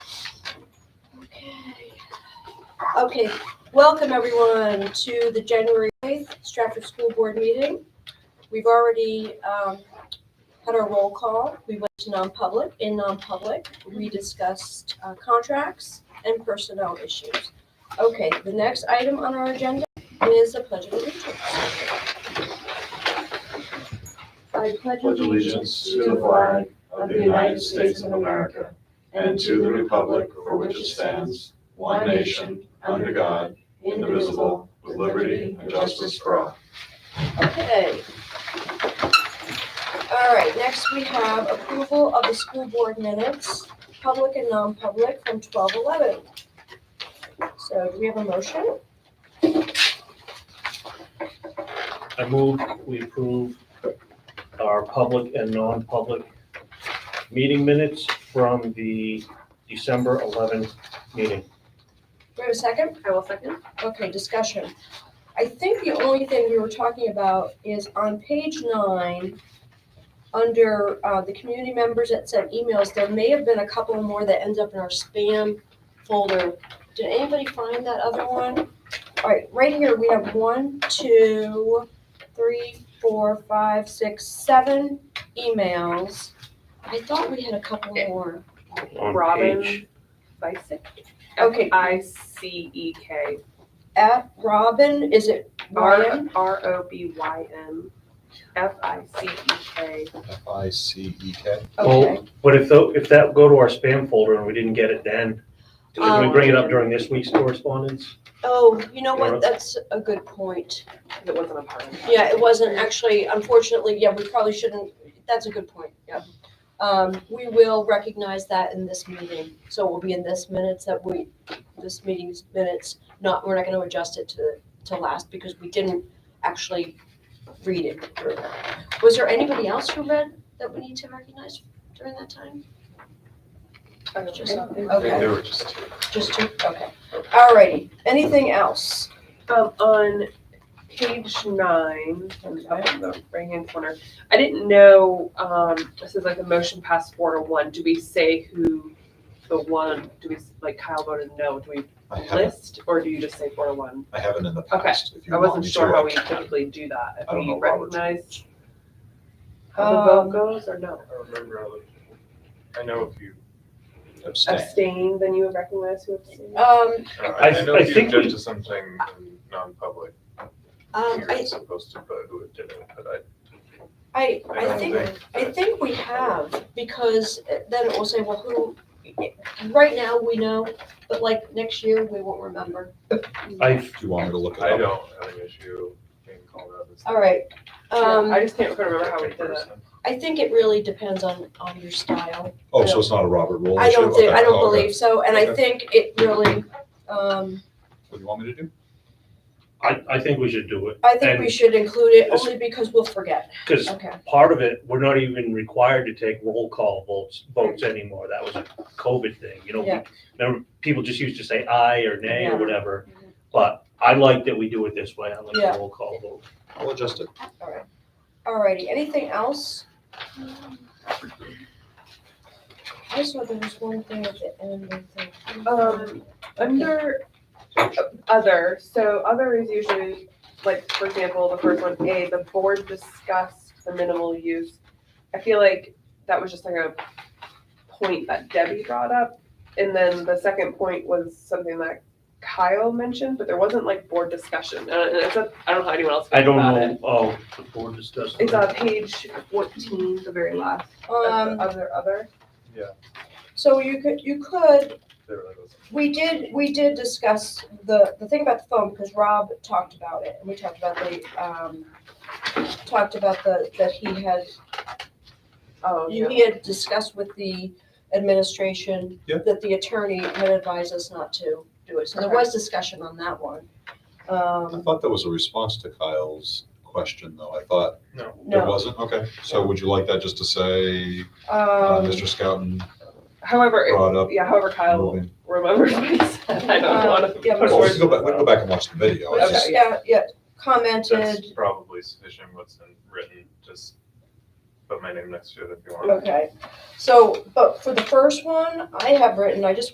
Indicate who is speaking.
Speaker 1: Okay, welcome everyone to the January 8th Stratford School Board meeting. We've already um, had our roll call. We went to non-public. In non-public, we discussed uh, contracts and personnel issues. Okay, the next item on our agenda is the Pledge of Allegiance. I
Speaker 2: pledge allegiance to the flag of the United States of America and to the republic for which it stands, one nation, under God, indivisible, with liberty and justice for all.
Speaker 1: Okay. All right, next we have approval of the school board minutes, public and non-public from twelve eleven. So do we have a motion?
Speaker 3: I move we approve our public and non-public meeting minutes from the December 11th meeting.
Speaker 1: Do we have a second?
Speaker 4: I will second.
Speaker 1: Okay, discussion. I think the only thing we were talking about is on page nine, under uh, the community members that sent emails, there may have been a couple more that end up in our spam folder. Did anybody find that other one? All right, right here, we have one, two, three, four, five, six, seven emails. I thought we had a couple more.
Speaker 3: On
Speaker 4: Robin.
Speaker 3: page-
Speaker 4: Bicek?
Speaker 1: Okay,
Speaker 4: I C E K.
Speaker 1: at Robin, is it Ryan?
Speaker 4: R, R O B Y N. F I C E K.
Speaker 5: F I C E K.
Speaker 1: Okay.
Speaker 3: Well, Oh, But if, tho- if that go to our spam folder and we didn't get it then, can we bring it up during this week's correspondence?
Speaker 1: Oh, you know what,
Speaker 3: Laura?
Speaker 1: that's a good point.
Speaker 4: Because it wasn't a part of it.
Speaker 1: Yeah, it wasn't actually, unfortunately, yeah, we probably shouldn't, that's a good point, yeah. Um, we will recognize that in this meeting, so it will be in this minutes that we, this meeting's minutes, not, we're not gonna adjust it to, to last because we didn't actually read it. through. Was there anybody else who read that we need to recognize during that time?
Speaker 4: I don't
Speaker 1: Just-
Speaker 4: think-
Speaker 1: Okay.
Speaker 5: There were just two.
Speaker 1: Just two, okay. Alrighty, anything else?
Speaker 4: Um, on page nine, in the right hand corner, I didn't know, um, this is like the motion passed four to one. Do we say who the one, do we, like Kyle voted no, do we
Speaker 5: I haven't,
Speaker 4: list or do you just say four to one?
Speaker 5: I haven't in the
Speaker 4: Okay.
Speaker 5: past. If you
Speaker 4: I
Speaker 5: want
Speaker 4: wasn't
Speaker 5: me to,
Speaker 4: sure how
Speaker 5: I
Speaker 4: we
Speaker 5: can.
Speaker 4: typically do that,
Speaker 5: I
Speaker 4: if
Speaker 5: don't
Speaker 4: we
Speaker 5: know, Robert.
Speaker 4: recognize how the vote
Speaker 1: Um,
Speaker 4: goes or no.
Speaker 6: I remember, I was- I know if you,
Speaker 5: Abstain.
Speaker 4: Abstain, then you would recognize who abstained?
Speaker 1: Um,
Speaker 6: I I know
Speaker 3: I
Speaker 6: if you
Speaker 3: think we-
Speaker 6: object to something in non-public,
Speaker 1: um, I,
Speaker 6: you're supposed to put who it did it, but I,
Speaker 1: I,
Speaker 6: I
Speaker 1: I
Speaker 6: don't
Speaker 1: think
Speaker 6: think.
Speaker 1: I think we have, because then it will say, well, who, right now, we know, but like next year, we won't remember.
Speaker 3: I,
Speaker 5: Do you want me to look it
Speaker 6: I
Speaker 5: up?
Speaker 6: don't have an issue being called out as.
Speaker 1: All right,
Speaker 4: Yeah, I
Speaker 1: um,
Speaker 4: just can't remember how we did it.
Speaker 6: Person.
Speaker 1: I think it really depends on, on your style.
Speaker 5: Oh, so it's not a Robert Rule
Speaker 1: I
Speaker 5: issue?
Speaker 1: don't think,
Speaker 5: Okay.
Speaker 1: I don't
Speaker 5: Oh, okay.
Speaker 1: believe so, and I think it really, um,
Speaker 5: What do you want me to do?
Speaker 3: I, I think we should do it.
Speaker 1: I think we should include it
Speaker 3: Yes.
Speaker 1: only because we'll forget.
Speaker 3: Because
Speaker 1: Okay,
Speaker 3: part of it, we're not even required to take roll call votes, votes anymore. That was a COVID thing, you know?
Speaker 1: Yeah.
Speaker 3: Remember, people just used to say aye or nay
Speaker 1: Yeah. Mm-hmm.
Speaker 3: or whatever. But I like that we do it this way. I like
Speaker 1: Yeah.
Speaker 3: the roll call vote.
Speaker 5: I'll adjust it.
Speaker 1: alrighty, anything else? I saw there was one thing at the end, I think.
Speaker 4: Um, Under other, so other is usually, like, for example, the first one, A, the board discussed the minimal use. I feel like that was just like a point that Debbie brought up. And then the second point was something that Kyle mentioned, but there wasn't like board discussion. And it's a, I don't know how anyone else
Speaker 3: I
Speaker 4: feels
Speaker 3: don't
Speaker 4: about it.
Speaker 3: know, oh, the board discussed.
Speaker 4: It's on page fourteen, the very last of
Speaker 1: Um,
Speaker 4: the other, other.
Speaker 1: so you could, you could
Speaker 6: There really wasn't.
Speaker 1: We did, we did discuss the, the thing about the phone, because Rob talked about it, and we talked about the, um, talked about the, that he had,
Speaker 4: Oh,
Speaker 1: you,
Speaker 4: yeah.
Speaker 1: he had discussed with the administration
Speaker 5: Yeah.
Speaker 1: that the attorney had advised us not to do it, so there
Speaker 4: Okay.
Speaker 1: was discussion on that one.
Speaker 5: I
Speaker 1: Um,
Speaker 5: thought that was a response to Kyle's question, though. I thought it
Speaker 1: no,
Speaker 5: wasn't. Okay. So would you like that just to say, uh,
Speaker 1: um,
Speaker 5: Mr. Scouten
Speaker 4: However, it-
Speaker 5: brought up?
Speaker 4: yeah, however Kyle
Speaker 5: moving-
Speaker 4: remembers what he said, I don't
Speaker 1: Um,
Speaker 4: wanna.
Speaker 1: yeah,
Speaker 5: Well, we
Speaker 4: Or-
Speaker 5: can go back, we can go back and watch the video. It's
Speaker 4: Okay.
Speaker 5: just-
Speaker 1: Mr. Scout, yeah,
Speaker 6: That's
Speaker 1: commented,
Speaker 6: probably sufficient what's in written, just put my name next to it if you want.
Speaker 1: okay. So, but for the first one, I have written, I just